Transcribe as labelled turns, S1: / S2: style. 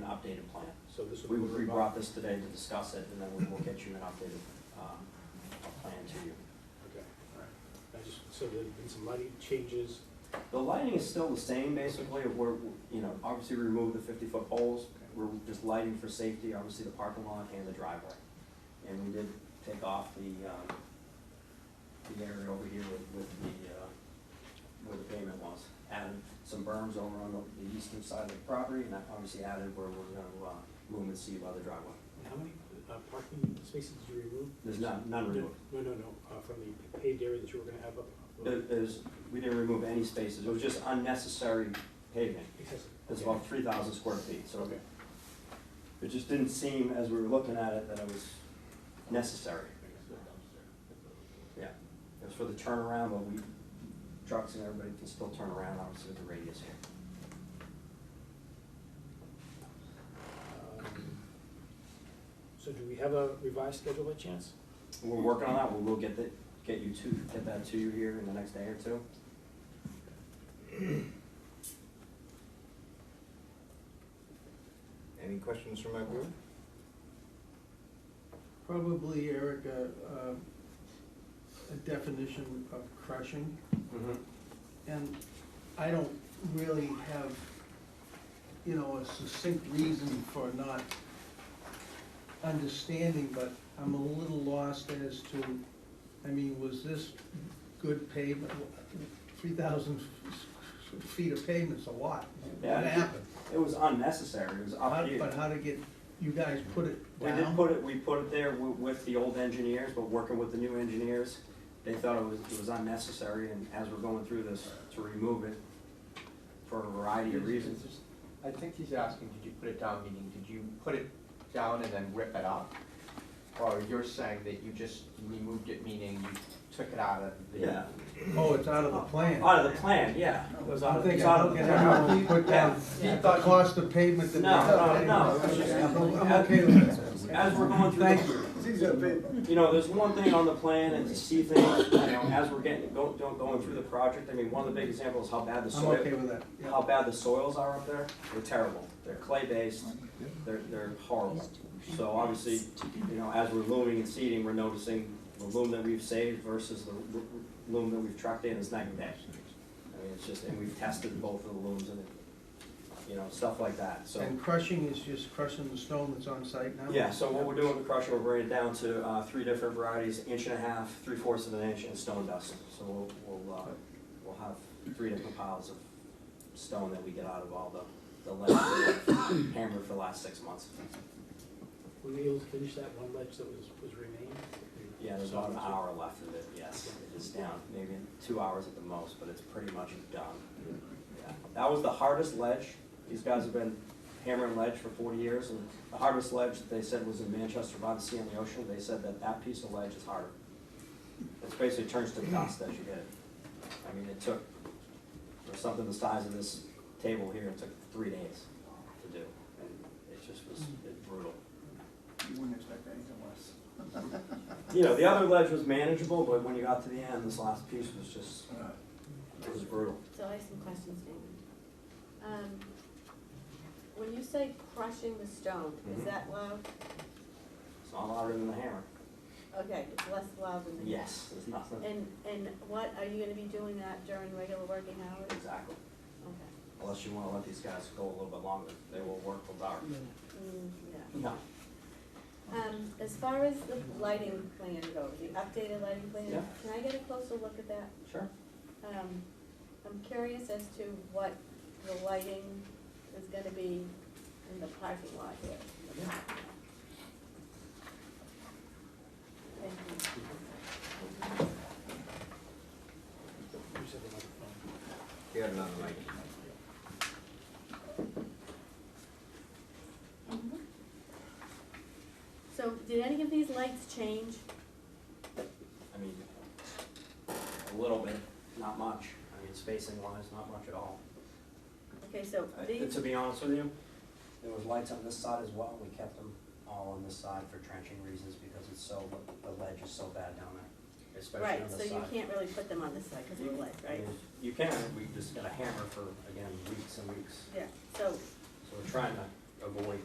S1: updated plan.
S2: So this
S1: We,
S2: would.
S1: we
S2: be
S1: brought this today to discuss it, and then we will get you an updated, um, plan to you.
S2: Okay, all right. I just, so there's been some lighting changes.
S1: The lighting is still the same, basically, of where, you know, obviously we removed the fifty-foot poles. We're just lighting for safety, obviously the parking lot and the driveway. And we did take off the, um, the area over here with, with the, uh, where the pavement was. Added some berms over on the, the eastern side of the property, and that obviously added where we're gonna, uh, move and see by the driveway.
S2: And how many uh, parking spaces did you remove?
S1: There's none, none removed.
S2: No, no, no, uh, from the paved area that you were gonna have up.
S1: There- There's, we didn't remove any spaces, it was just unnecessary pavement.
S2: Excessive.
S1: It's
S2: Okay.
S1: about three thousand square feet, so
S2: Okay.
S1: It just didn't seem, as we were looking at it, that it was necessary. Yeah, it was for the turnaround, but we, trucks and everybody can still turn around, obviously, with the radius here.
S2: Um, So do we have a revised schedule by chance?
S1: We're working on that, we will get the, get you to, get that to you here in the next day or two.
S3: Any questions from my board?
S4: Probably, Eric, a, um, a definition of crushing,
S2: Mm-hmm.
S4: and I don't really have, you know, a succinct reason for not understanding, but I'm a little lost as to, I mean, was this good pavement? Three thousand feet of pavement's a lot.
S1: Yeah.
S4: What happened?
S1: It was unnecessary, it was up
S4: How-
S1: here.
S4: But how to get, you guys put it
S1: We
S4: down?
S1: did put it, we put it there wi- with the old engineers, but working with the new engineers, they thought it was, it was unnecessary, and as we're going through this, to remove it for a variety of reasons.
S5: I think he's asking, did you put it down, meaning, did you put it down and then rip it up? Or you're saying that you just removed it, meaning you took it out of the.
S1: Yeah,
S4: Oh, it's out of the plan.
S1: out of the plan, yeah. It was out
S4: I'm
S1: of- it's
S4: thinking,
S1: out of
S4: okay,
S1: the
S4: I'm
S1: plan.
S4: gonna put down the cost of pavement that they
S1: No,
S4: have.
S1: no, no, it's just-
S4: I'm I'm okay with that.
S1: As we're going through,
S4: Thank
S1: the- you know, there's one thing on the plan, and to see things, you know, as we're getting, go- go- going through the project, I mean, one of the big examples is how bad the
S4: I'm
S1: soil.
S4: okay with that.
S1: how bad the soils are up there, they're terrible. They're clay-based, they're, they're horrible. So obviously, you know, as we're looming and seeding, we're noticing the loom that we've saved versus the lo- loom that we've trucked in is night and day. I mean, it's just, and we've tested both of the looms and, you know, stuff like that, so.
S4: And crushing is just crushing the stone that's on site now?
S1: Yeah, so what we're doing with the crusher, we're bringing it down to, uh, three different varieties, inch and a half, three fourths of an inch, and stone dust. So we'll, we'll, uh, we'll have three different piles of stone that we get out of all the, the lead hammer for the last six months.
S2: Were you able to finish that one ledge that was, was remaining?
S1: Yeah, there's about an hour left of it, yes, it is down, maybe two hours at the most, but it's pretty much done. Yeah, That was the hardest ledge, these guys have been hammering ledge for forty years, and the hardest ledge that they said was in Manchester by the sea and the ocean, they said that that piece of ledge is harder. It basically turns to dust as you hit it. I mean, it took, for something the size of this table here, it took three days to do, and it just was it brutal.
S6: You wouldn't expect anything less.
S1: You know, the other ledge was manageable, but when you got to the end, this last piece was just, it was brutal.
S7: So I have some questions, David. Um, when you say crushing the stone,
S1: Mhm.
S7: is that loud?
S1: It's not louder than the hammer.
S7: Okay, it's less loud than the.
S1: Yes, it's nothing.
S7: And, and what, are you gonna be doing that during regular working hours?
S1: Exactly.
S7: Okay.
S1: Unless you wanna let these guys go a little bit longer, they will work till dark.
S7: Mm, yeah.
S1: No.
S7: Um, as far as the lighting plan goes, the updated lighting plan,
S1: Yeah.
S7: can I get a closer look at that?
S1: Sure.
S7: Um, I'm curious as to what the lighting is gonna be in the parking lot here. Thank you.
S2: You said the microphone.
S3: You got another mic.
S7: So, did any of these lights change?
S1: I mean, a little bit, not much. I mean, spacing wise, not much at all.
S7: Okay, so
S1: I-
S7: these,
S1: To be honest with you, there was lights on this side as well. We kept them all on this side for trenching reasons because it's so, the ledge is so bad down there, especially
S7: right,
S1: on this
S7: so
S1: side.
S7: you can't really put them on this side because of the light, right?
S1: You can, we just got a hammer for, again, weeks and weeks,
S7: Yeah, so
S1: so we're trying to avoid